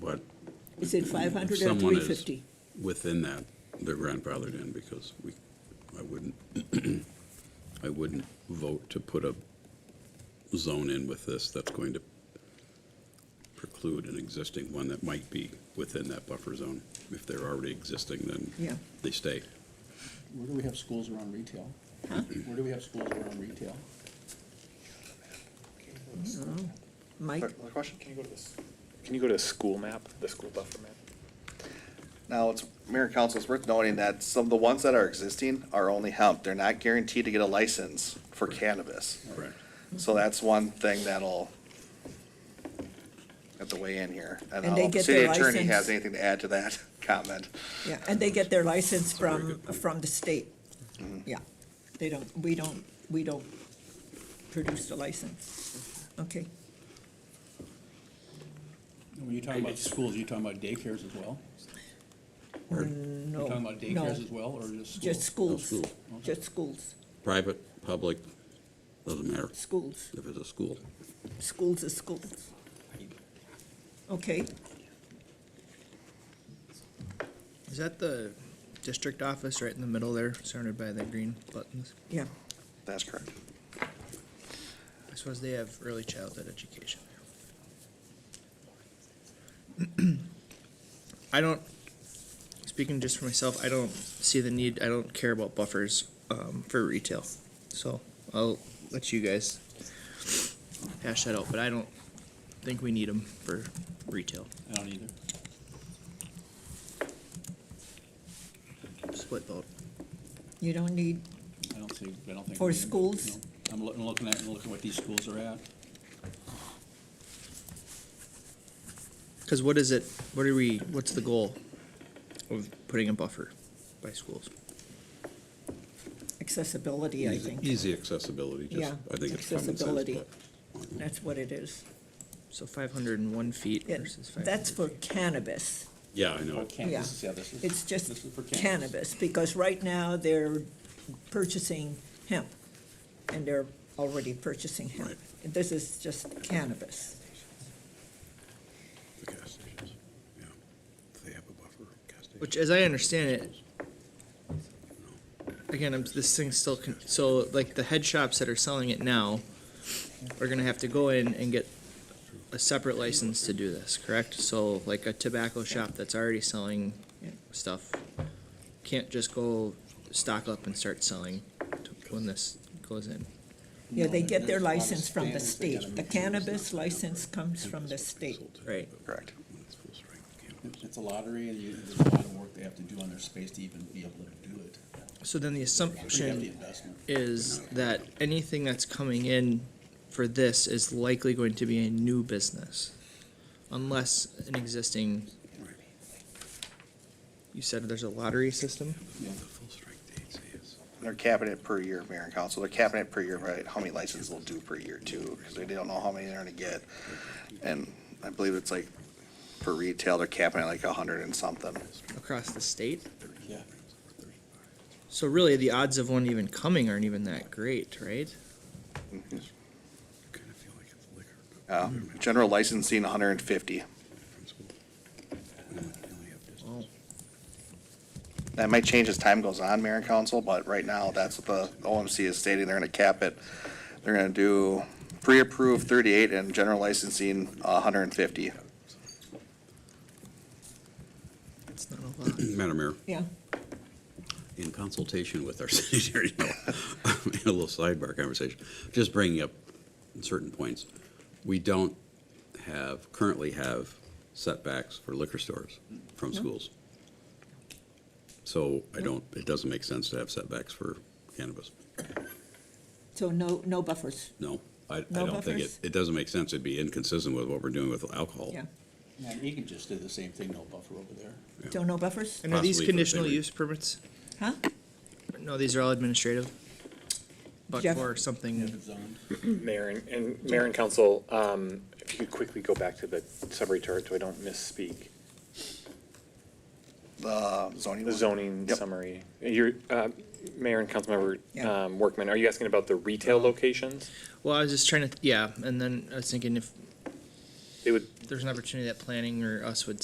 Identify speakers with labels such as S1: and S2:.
S1: But
S2: Is it five
S1: if
S2: hundred or
S1: someone
S2: three
S1: is
S2: fifty?
S1: within that, they're grandfathered in because we, I wouldn't, I wouldn't vote to put a zone in with this that's going to preclude an existing one that might be within that buffer zone. If they're already existing,
S2: Yeah.
S1: then they stay.
S3: Where do we have schools around retail? Where do we have schools around retail?
S2: Mike,
S4: Another question? Can you go to this? Can you go to the school map, the school buffer map?
S5: Now, it's, Mayor and Council, it's worth noting that some of the ones that are existing are only hemp. They're not guaranteed to get a license for cannabis.
S1: Correct.
S5: So that's one thing that'll have to weigh in here.
S2: And
S5: And
S2: they
S5: I'll-
S2: get
S5: city
S2: their
S5: attorney
S2: license-
S5: has anything to add to that comment.
S2: yeah, and they get their license
S1: That's a very
S2: from,
S1: good point.
S2: from the state. Yeah, they don't, we don't, we don't produce the license. Okay,
S3: When you're talking about schools, you're talking about daycares as well?
S2: no,
S3: You're talking about
S2: no,
S3: daycares as well, or just schools?
S2: just schools,
S1: Oh, school.
S2: just schools,
S1: Private, public, doesn't matter
S2: schools,
S1: if it's a school.
S2: schools is schools. Okay,
S6: Is that the district office right in the middle there, surrounded by the green buttons?
S2: yeah,
S5: That's correct.
S6: I suppose they have early childhood education. I don't, speaking just for myself, I don't see the need, I don't care about buffers, um, for retail. So I'll let you guys hash that out, but I don't think we need them for retail.
S3: I don't either.
S6: Split vote.
S2: you don't need,
S3: I don't think, I don't think.
S2: For
S3: we need-
S2: schools?
S3: no. I'm looking, looking at, looking what these schools are at.
S6: Cause what is it, what are we, what's the goal of putting a buffer by schools?
S2: accessibility, I
S1: Easy-
S2: think,
S1: Easy accessibility, just,
S2: Yeah,
S1: I think it's common sense.
S2: accessibility.
S1: but-
S2: that's what it is.
S6: So five hundred and one feet
S2: Yeah,
S6: versus five.
S2: That's for cannabis.
S1: Yeah, I
S3: Oh,
S1: know.
S3: can-
S2: Yeah.
S3: this is- yeah, this is-
S2: It's just
S3: this is for
S2: cannabis, because right now they're purchasing hemp, and they're already purchasing hemp.
S1: Right.
S2: And This is just cannabis.
S1: The gas stations, yeah. They have a buffer, gas stations.
S6: Which, as I understand it, Again, I'm, this thing's still, con- so like the head shops that are selling it now are gonna have to go in and get a separate license to do this, correct? So like a tobacco shop that's already selling
S2: Yeah.
S6: stuff can't just go stock up and start selling to- when this goes in.
S2: Yeah, they
S3: No,
S2: get their
S3: there's a lot of
S2: license from the
S3: standards they
S2: state. The
S3: gotta make sure it's not
S2: cannabis license comes from the state.
S6: Right.
S5: Correct.
S1: When it's full strength,
S3: It-
S1: cannabis.
S3: It's a lottery, and you, there's a lot of work they have to do on their space to even be able to do it.
S6: So then the
S3: Pretty hefty
S6: assumption
S3: investment.
S6: is that anything that's coming in for this is likely going to be a new business. Unless an existing, you said there's a lottery system?
S3: Yeah.
S1: The full strength dates is.
S5: They're capping it per year, Mayor and Council. They're capping it per year, right? How many licenses they'll do per year too, because they don't know how many they're gonna get. And I believe it's like, for retail, they're capping it like a hundred and something.
S6: across the state.
S3: Yeah.
S6: So really, the odds of one even coming aren't even that great, right?
S1: Kind of feel like it's liquor, but
S5: Uh, general licensing, hundred and fifty.
S1: principle. We only- we only have distance.
S6: Well,
S5: That might change as time goes on, Mayor and Council, but right now, that's what the OMC is stating, they're gonna cap it. They're gonna do pre-approved thirty-eight and general licensing, hundred and fifty.
S6: That's not a lot.
S1: Madam Mayor,
S2: Yeah,
S1: in consultation with our city attorney, no, a little sidebar conversation, just bringing up certain points. We don't have, currently have setbacks for liquor stores from schools. So I don't, it doesn't make sense to have setbacks for cannabis.
S2: so no, no buffers,
S1: No, I, I
S2: No
S1: don't think it,
S2: buffers?
S1: it doesn't make sense. It'd be inconsistent with what we're doing with alcohol.
S2: yeah.
S3: Yeah, Egan just did the same thing, no buffer over there.
S2: So no buffers?
S6: And are these
S1: Possibly for
S6: conditional
S1: delivery.
S6: use permits?
S2: Huh?
S6: No, these are all administrative. But
S2: Jeff?
S6: for something,
S3: Different zone.
S4: Mayor and, and mayor and council, um, if you could quickly go back to the summary chart so I don't misspeak.
S5: The zoning.
S4: The
S5: one?
S4: zoning
S5: Yep.
S4: summary, your, uh, mayor and councilmember,
S2: Yeah.
S4: um, Workman, are you asking about the retail locations?
S6: well, I was just trying to, yeah, and then I was thinking if
S4: they would
S6: there's an opportunity that planning or us would